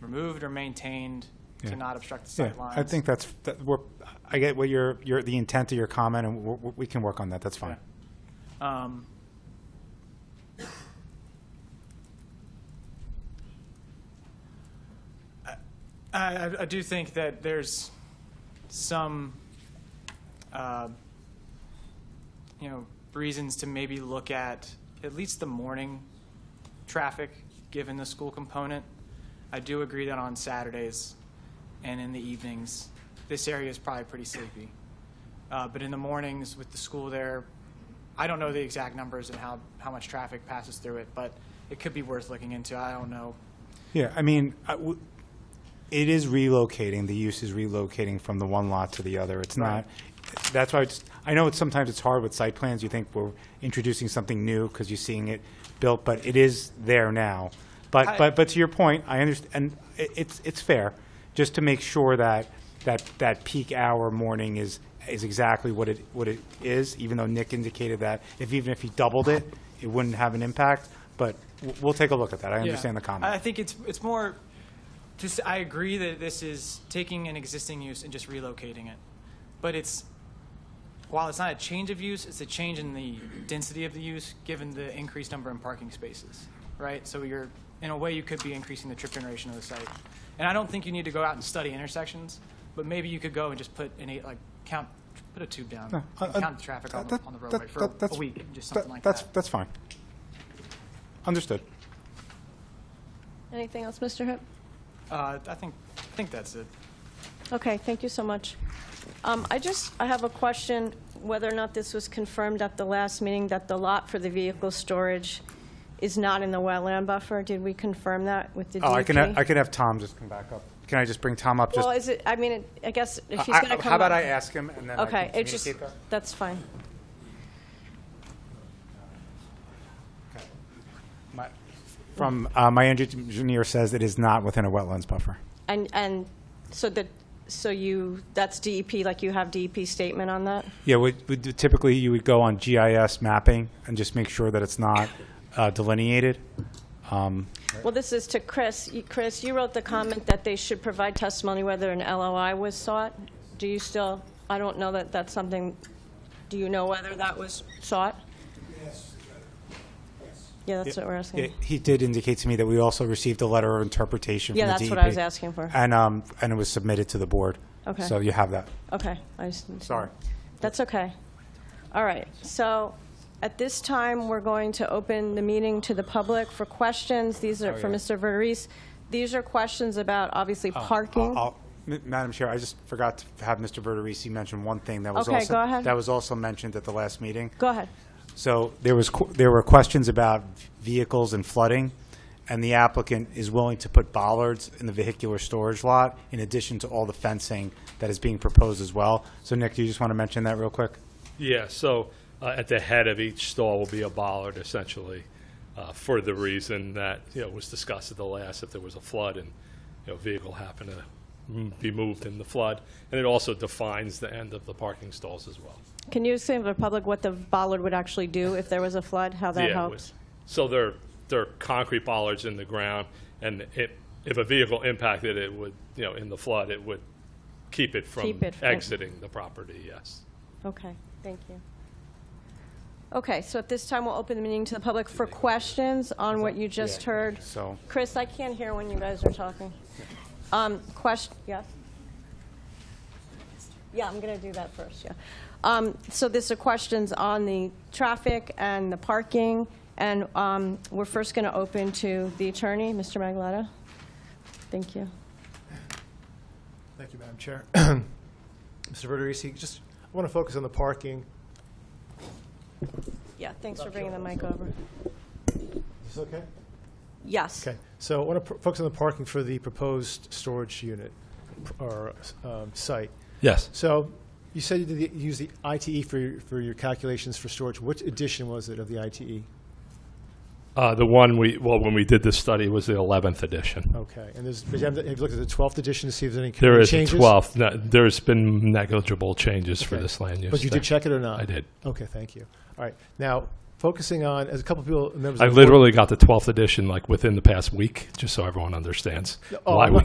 removed or maintained Yeah. to not obstruct the Yeah, sight lines. I think that's, that, we're, I get what your, your, the intent of your comment, and we, we can work on that, that's fine. Um, I, I, I do think that there's some, uh, you know, reasons to maybe look at at least the morning traffic, given the school component. I do agree that on Saturdays and in the evenings, this area is probably pretty sleepy. Uh, but in the mornings with the school there, I don't know the exact numbers and how, how much traffic passes through it, but it could be worth looking into. I don't know. Yeah, I mean, I w- it is relocating, the use is relocating from the one lot to the other. It's not, that's why, I just- I know it's, sometimes it's hard with site plans, you think we're introducing something new because you're seeing it built, but it is there now. But, I- but, but to your point, I understand, and i- it's, it's fair, just to make sure that, that, that peak hour morning is, is exactly what it, what it is, even though Nick indicated that if, even if he doubled it, it wouldn't have an impact, but w- we'll take a look at that, I understand the comment. I think it's, it's more, this, I agree that this is taking an existing use and just relocating it. But it's, while it's not a change of use, it's a change in the density of the use, given the increased number in parking spaces, right? So you're, in a way, you could be increasing the trip generation of the site. And I don't think you need to go out and study intersections, but maybe you could go and just put an eight, like, count, put a tube down, Uh, and uh, count the traffic on the, That- on the that- roadway for that- a that's- week, just something like that's- that. That's fine. Understood. Anything else, Mr. Hip? Uh, I think, I think that's it. Okay, thank you so much. Um, I just, I have a question, whether or not this was confirmed at the last meeting, that the lot for the vehicle storage is not in the wetland buffer. Did we confirm that with the DEP? Oh, I can, I can have Tom just come back up. Can I just bring Tom up? just- Well, is it, I mean, it- I guess if he's I- going to come up. How about I ask him and then I Okay, can it's just, communicate that? that's fine. Okay. My- From, uh, my engineer says it is not within a wetlands buffer. And, and so that, so you, that's DEP, like you have DEP statement on that? Yeah, we- we do- typically you would go on GIS mapping and just make sure that it's not uh, delineated. Um, Well, this is to Chris. You- Chris, you wrote the comment that they should provide testimony whether an LOI was sought. Do you still, I don't know that that's something, do you know whether that was sought? Yes. Yeah, that's what we're Yeah, asking. He did indicate to me that we also received a letter of interpretation from Yeah, the DEP. that's what I was asking for. And, um, and it was submitted to the board. Okay. So you have that. Okay, I just. Sorry. That's okay. All right, so at this time, we're going to open the meeting to the public for questions. These are for Oh, yeah. Oh, Mr. Verderese. These are questions about, obviously, parking. I'll- I'll- M- Madam Chair, I just forgot to have Mr. Verderisi mention one thing that was Okay, also. go ahead. That was also mentioned at the last meeting. Go ahead. So there was, qu- there were questions about vehicles and flooding, and the applicant is willing to put bollards in the vehicular storage lot in addition to all the fencing that is being proposed as well. So Nick, do you just want to mention that real quick? Yeah, so uh, at the head of each stall will be a bollard essentially, uh, for the reason that, you know, was discussed at the last, if there was a flood and, you know, vehicle happened to mm, be moved in the flood. And it also defines the end of the parking stalls as well. Can you explain to the public what the bollard would actually do if there was a flood, how that Yeah, it helps? was- So they're, they're concrete bollards in the ground, and it, if a vehicle impacted, it would, you know, in the flood, it would keep it from Keep it from- exiting the property, yes. Okay, thank you. Okay, so at this time, we'll open the meeting to the public for questions on what you just heard. So, Chris, I can't hear when you guys are talking. Um, question, yes? Yeah, I'm gonna do that first, yeah. Um, so this are questions on the traffic and the parking, and, um, we're first gonna open to the attorney, Mr. Magalata. Thank you. Thank you, Madam Chair. Mr. Verderisi, just, I want to focus on the parking. Yeah, thanks for bringing the mic over. Is this okay? Yes. Okay, so I want to focus on the parking for the proposed storage unit or um, site. Yes. So you said you did the- you used the ITE for your, for your calculations for storage. Which edition was it of the E? ITE? Uh, the one we, well, when we did this study was the 11th edition. Okay, and there's, but you haven't- have you looked at the 12th edition to see if there's any There changes? is a 12th. No, There's been negligible changes for Okay. this land use. But you uh, thing. did check it or not? I did. Okay, thank you. All right, now, focusing on, as a couple people, members. I of the board- literally got the 12th edition like within the past week, just so everyone understands Oh, why I'm we